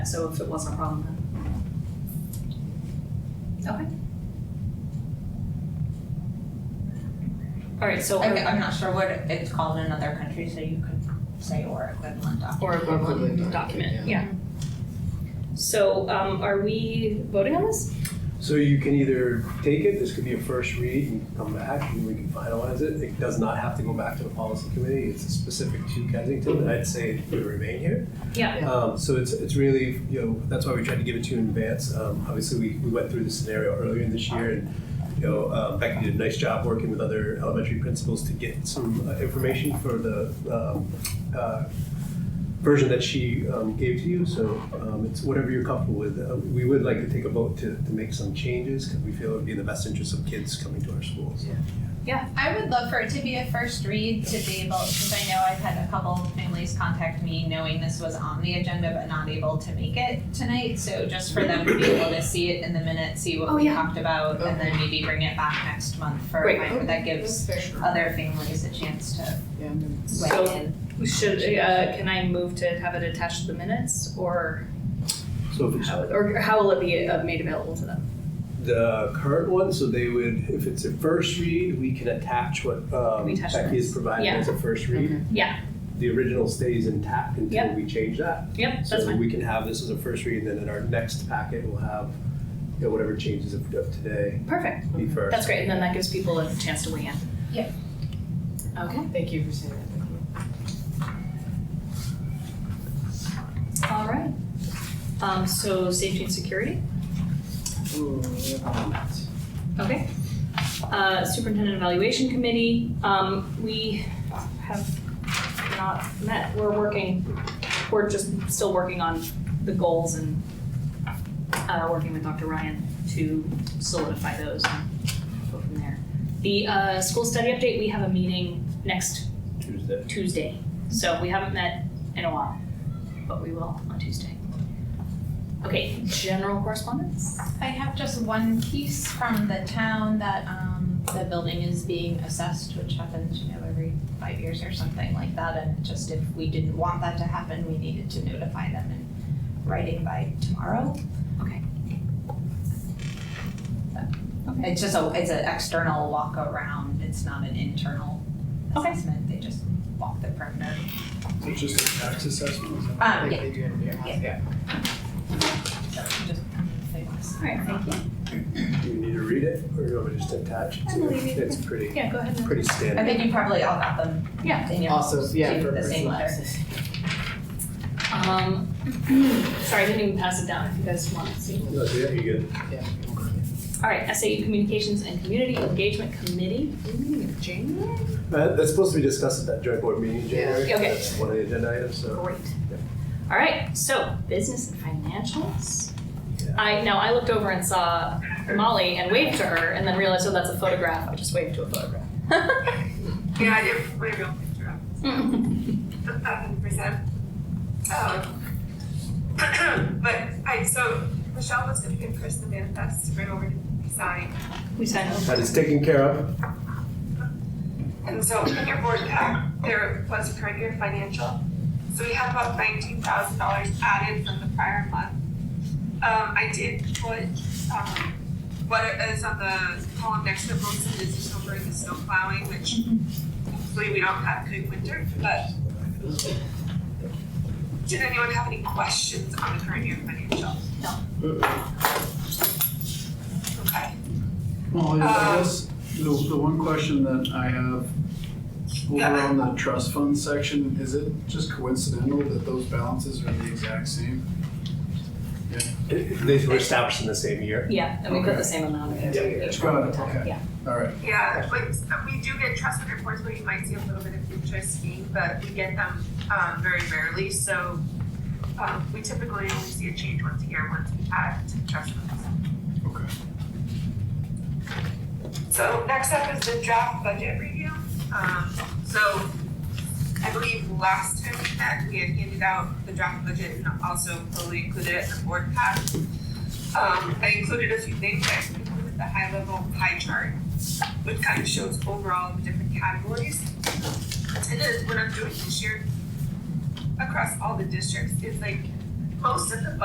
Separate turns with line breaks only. So if it wasn't a problem, then. Okay. All right, so
I,
we're-
I'm not sure what it's called in other countries, so you could say or equivalent document.
or a equivalent
Equivalent
document,
document,
yeah. So um are we voting on this?
So you can either take it, this could be a first read and come back and we can finalize it. It does not have to go back to the policy committee, it's specific to Kensington, and I'd say it would remain here.
Yeah.
Um, so it's, it's really, you know, that's why we tried to give it to you in advance. Um, obviously, we, we went through the scenario earlier in this year and, you know, um, Becky did a nice job working with other elementary principals to get some uh, information for the, um, uh, version that she um, gave to you, so um, it's whatever you're comfortable with. Uh, We would like to take a vote to, to make some changes because we feel it would be in the best interest of kids coming to our schools.
I would love for it to be a first read to be able, because I know I've had a couple families contact me knowing this was on the agenda but not able to make it tonight. So just for them to be able to see it in the minute, see what
Oh,
we
yeah.
talked about, and then maybe bring it back next month for,
Great.
final- that gives
fair.
other families a chance to
Yeah.
So-
weigh in.
We Should, uh, can I move to have it attached to the minutes or
So if it's
how, or how will it be uh, made available to them?
the current one, so they would, if it's a first read, we can attach what um,
We attach
Becky is providing
Yeah.
as a first read.
Mm-hmm.
Yeah.
The original stays intact until
Yep.
we change that.
Yep, that's
So
fine.
we can have this as a first read, and then in our next packet, we'll have, you know, whatever changes of of today
Perfect.
be first.
That's great. And then that gives people a chance to weigh in.
Yeah.
Okay.
Thank you for saying that. Thank you.
All right. Um, so safety and security.
Ooh, we have a lot.
Okay. Uh, Superintendent Evaluation Committee, um, we have not met, we're working, we're just still working on the goals and uh, working with Dr. Ryan to solidify those and go from there. The uh, school study update, we have a meeting next
Tuesday.
Tuesday, so we haven't met in a while, but we will on Tuesday. Okay, general correspondence?
I have just one piece from the town that um the building is being assessed, which happens, you know, every five years or something like that. And just if we didn't want that to happen, we needed to notify them in writing by tomorrow.
Okay.
So, It's just a, it's an external walk around, it's not an internal
Okay.
assessment, they just walk the perimeter.
So just a tax assessment?
Um,
Like
yeah,
they do in your house,
Yeah.
yeah.
so just, if they want to.
All right, thank you.
Do you need to read it, or do you want me to just attach it
I
to
believe
it?
you.
It's pretty,
Yeah, go ahead and.
pretty
I
standard.
think you probably all got them
Yeah.
in your
Also,
homes,
yeah,
too,
for
the same
personal
letter.
access.
Um, sorry, I didn't even pass it down if you guys want to see.
No, yeah, you good.
Yeah.
All right, SAU Communications and Community Engagement Committee.
Uh, That's supposed to be discussed at that joint board meeting in
Yeah.
January.
Okay.
That's one of the agenda items, so.
Great. All right, so business and financials.
Yeah.
I, now I looked over and saw Molly and waved to her and then realized, oh, that's a photograph. I just waved to a photograph.
Yeah, I did put a real picture up, a thousand percent. Um, Oh. But I, so Michelle was gonna impress the manifest to bring over to sign.
We signed up.
That is taken care of.
And so in your board pack, there was current year financial. So we have about nineteen thousand dollars added from the prior month. Um, I did put, um, what is on the column next to roads and business over in the snow plowing, which hopefully we don't have good winter, but did anyone have any questions on the current year financial? Okay.
Molly, I
Um,
guess the, the one question that I have over
Yeah.
on the trust fund section, is it just coincidental that those balances are the exact same?
They were established in the same year.
Yeah, and we put the same amount in
Yeah.
each
Got
one.
it, okay.
Yeah.
All right.
Yeah, like so we do get trust fund reports where you might see a little bit of interest gain, but we get them um very rarely, so um we typically only see a change once a year once we add to the trust funds.
Okay.
So next up is the draft budget review. Um so I believe last time we met, we had handed out the draft budget and also fully included it in the board pack. Um I included a few things, I included the high level pie chart which kind of shows overall the different categories. And then what I'm doing this year across all the districts is like most of the